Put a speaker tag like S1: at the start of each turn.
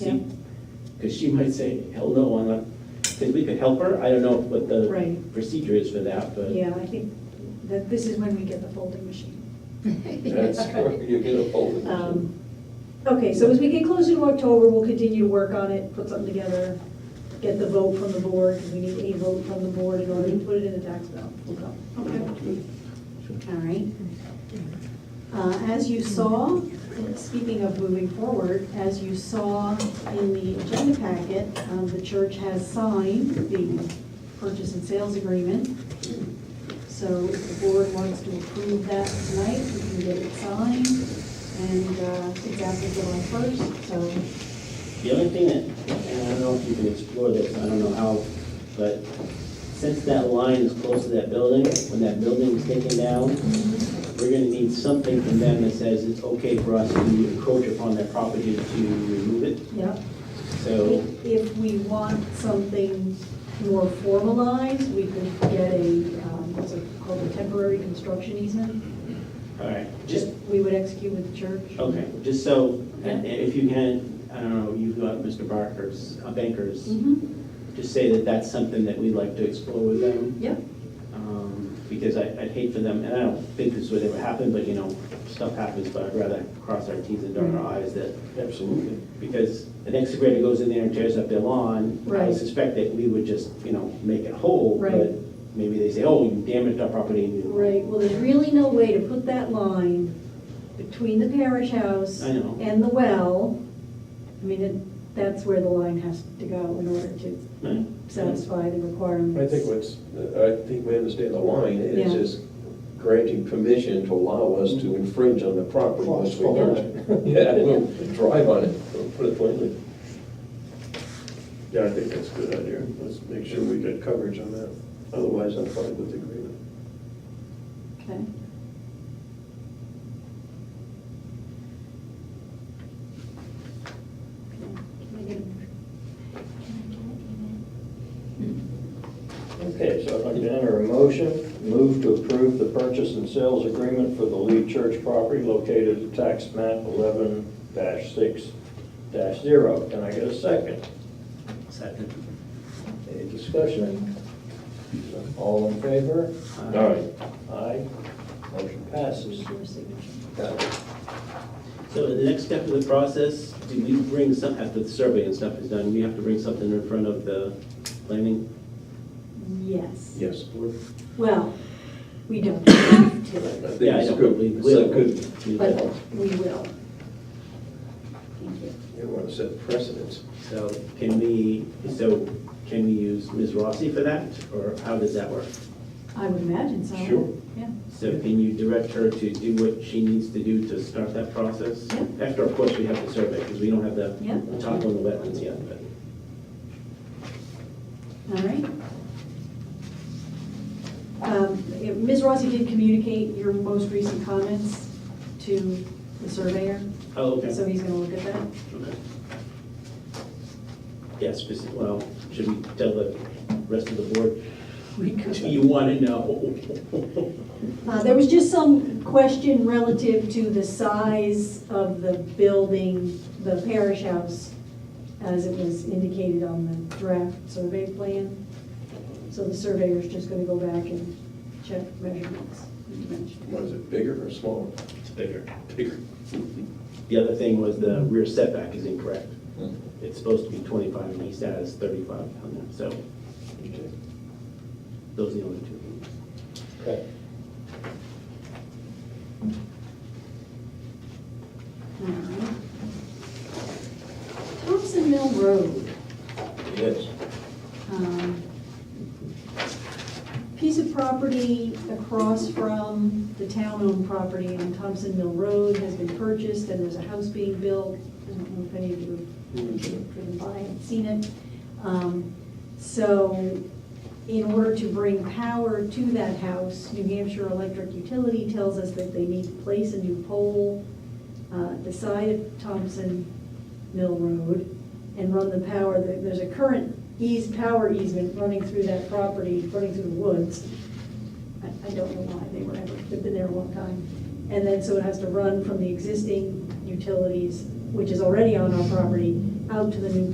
S1: Because she might say, hell no, I'm not, because we could help her, I don't know what the
S2: Right,
S1: procedure is for that, but
S2: yeah, I think that this is when we get the folding machine.
S3: That's where you get a folding machine.
S2: Um, Okay, so as we get closer to October, we'll continue to work on it, put something together, get the vote from the board, 'cause we need a vote from the board in order to put it in the tax bill.
S4: Okay. All right. Uh, As you saw, speaking of moving forward, as you saw in the agenda packet, um, the church has signed the purchase and sales agreement. So if the board wants to approve that tonight, we can get it signed, and uh, it's after July 1st, so
S1: the only thing that, and I don't know if you can explore this, I don't know how, but since that line is close to that building, when that building is taken down, we're gonna need something from them that says it's okay for us to encroach upon their property to remove it,
S2: Yeah,
S1: so,
S2: if if we want something more formalized, we could get a, um, what's it called, a temporary construction easement
S1: all right, just
S2: that we would execute with the church.
S1: Okay, just so, i-
S2: Yeah.
S1: if you can, I don't know, you've got Mr. Barker's, uh, Banker's,
S2: Mhm,
S1: just say that that's something that we'd like to explore with them,
S2: Yep,
S1: um, because I- I'd hate for them, and I don't think this would ever happen, but you know, stuff happens, but I'd rather cross our Ts and dot our
S2: Mm-hmm.
S1: Is that. Absolutely. Because the next grader goes in there and tears up their lawn, I
S2: Right.
S1: would suspect that we would just, you know, make it whole,
S2: Right.
S1: but maybe they say, oh, you damaged our property, and you.
S2: right, well, there's really no way to put that line between the parish house
S1: I know.
S2: and the well. I mean, it- that's where the line has to go in order to
S1: Right.
S2: satisfy the requirements.
S3: I think what's, uh, I think we understand the line, it's
S2: Yeah.
S3: just granting permission to allow us to infringe on the property once we
S2: follow
S3: own it. Yeah, we'll drive on it, we'll put it plainly.
S5: Yeah, I think that's a good idea. Let's make sure we get coverage on that. Otherwise, I'm fine with the agreement.
S4: Okay. Can I get a-
S6: Okay, so I'd like to enter a motion, move to approve the purchase and sales agreement for the Lee Church property located at tax map eleven six zero. Can I get a second?
S1: Second.
S6: Any discussion? All in favor?
S1: Uh,
S6: Aye. Motion passes.
S4: just your signature?
S6: Got it.
S1: So the next step of the process, do we bring some, after the survey and stuff is done, we have to bring something in front of the planning
S4: Yes.
S3: Yes.
S1: board?
S4: Well, we don't have
S3: I
S4: to,
S3: think
S1: Yeah, I
S3: it's
S1: don't
S3: good.
S1: believe
S3: It's
S1: we'll-
S3: a good,
S1: we
S4: but
S1: will.
S4: we will. Thank you.
S3: you want to set precedence.
S1: So can we, so can we use Ms. Rossi for that, or how does that work?
S4: I would imagine so.
S3: Sure.
S4: Yeah.
S1: So can you direct her to do what she needs to do to start that process?
S4: Yeah.
S1: After, of course, we have the survey, because we don't have the
S4: Yeah.
S1: the top on the wetlands yet, but.
S4: All right. Um, if- Ms. Rossi did communicate your most recent comments to the surveyor,
S1: Oh, okay.
S4: so he's gonna look at that.
S1: Okay. Yes, speci- well, should we tell the rest of the board? Do you want to know?
S4: Uh, There was just some question relative to the size of the building, the parish house, as it was indicated on the draft survey plan. So the surveyor's just gonna go back and check measurements. and dimensions.
S3: Was it bigger or smaller?
S1: It's bigger.
S3: Bigger.
S1: The other thing was the rear setback is incorrect.
S6: Hmm.
S1: It's supposed to be 25 and he has 35 on there, so
S3: Okay.
S1: those are the only two. things.
S6: Okay.
S4: All right. Thompson Mill Road.
S6: Yes.
S4: um, Piece of property across from the town-owned property on Thompson Mill Road has been purchased, and there's a house being built. I don't know if any of you have driven by and seen it. Um, So in order to bring power to that house, New Hampshire Electric Utility tells us that they need to place a new pole uh, at the side of Thompson Mill Road and run the power, There- there's a current ease, power easement running through that property, running through the woods. I, I don't know why, they were, they've been there a long time. And then, so it has to run from the existing utilities, which is already on our property, out to the new